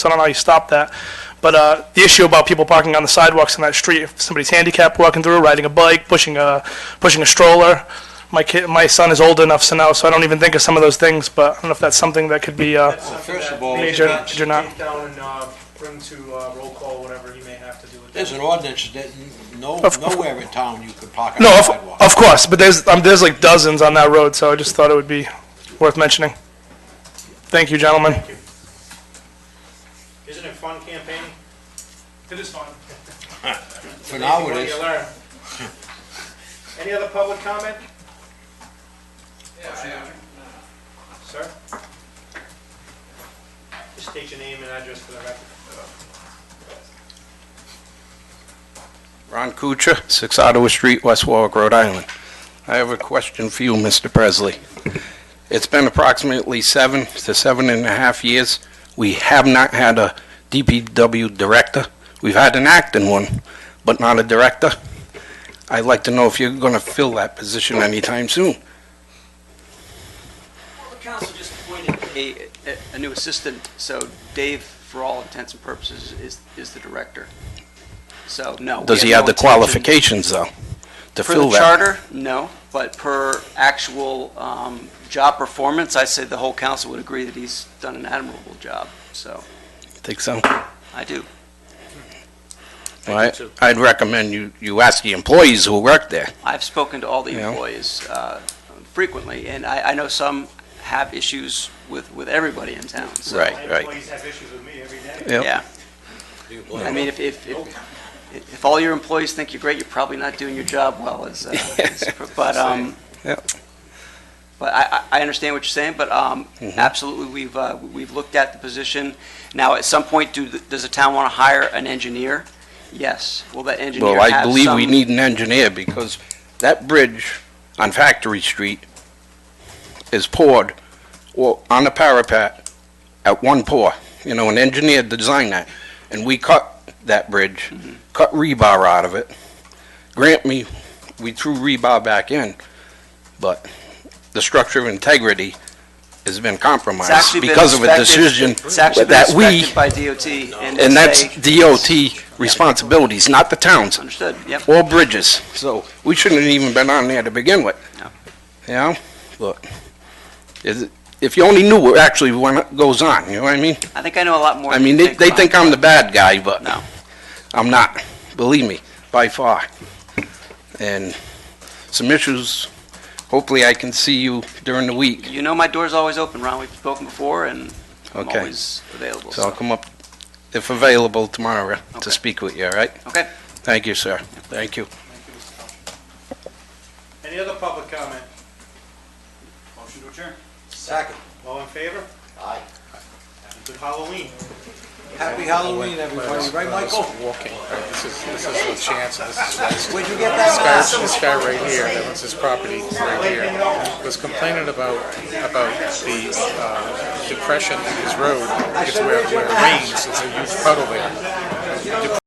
so I don't know how you stop that. But uh, the issue about people parking on the sidewalks in that street, if somebody's handicapped walking through, riding a bike, pushing a, pushing a stroller, my kid, my son is old enough so now, so I don't even think of some of those things, but I don't know if that's something that could be, uh, That's something First that of all, we Major- major should not- Take down and, uh, bring to, uh, roll call, whatever he may have to do with that. there's an ordinance that n- no, Of- nowhere in town you could park on no, a of, sidewalk. of course, but there's, um, there's like dozens on that road, so I just thought it would be worth mentioning. Thank you, gentlemen. Thank you. Isn't it fun campaigning? It is fun. For now What it do is. you learn? Any other public comment? Sir? Just state your name and address for the record. Ron Kuchar, 6 Ottawa Street, West Warwick, Rhode Island. I have a question for you, Mr. Presley. It's been approximately seven to seven and a half years. We have not had a DPW director. We've had an acting one, but not a director. I'd like to know if you're going to fill that position anytime soon. Well, The council just appointed a, a- uh, a new assistant, so Dave, for all intents and purposes, is, is the director. So, no. we Does he no have the intention- qualifications, though, to Per fill that? the charter, no, but per actual um, job performance, I say the whole council would agree that he's done an admirable job, so Think so? I do. Well, I- I'd recommend you, you ask the employees who work there. I've spoken to all the Yeah. employees uh, frequently, and I, I know some have issues with, with everybody in town, so. Right, My right. employees have issues with me every day. Yep. Yeah. I mean, if, if, if, if all your employees think you're great, you're probably not doing your job well as, uh, as- but, um, Yep. but I, I I understand what you're saying, but, um, Mm-hmm. absolutely, we've, uh, we've looked at the position. Now, at some point, do, the- does the town want to hire an engineer? Yes. Will that engineer Well, have some? I believe we need an engineer because that bridge on Factory Street is poured or on a parapet at one pour. You know, an engineer designed that. And we cut that bridge, Mm-hmm. cut rebar out of it. Grant me, we threw rebar back in, but the structure of integrity has been It's actually compromised been because of a inspected- decision It's actually been that we, inspected by DOT, and and that's they- DOT responsibilities, not the town's Understood, yep. or bridges. So we shouldn't have even been on there to begin with. No. You know, look, is it, if you only knew what actually went- goes on, you know what I mean? I think I know a lot more I than mean, you they, they Ron. think I'm the bad guy, but No. I'm not, believe me, by far. And some issues, hopefully I can see you during the week. You know my door's always open, Ron. We've spoken before, and I'm Okay. always available. So I'll So, come up, if available, tomorrow Okay. to speak with you, all right? okay. Thank you, sir. Thank you. Any other public comment? Motion to adjourn. Second. All in favor? Aye. Have a good Halloween. Happy Halloween, everybody, right, Michael? walking. right? This is, this is the chance, and this is, this Where'd you get that? guy, this guy right here, that owns his property right here, was complaining about, about the, uh, depression in his road, because where, where it rains, there's a huge puddle there.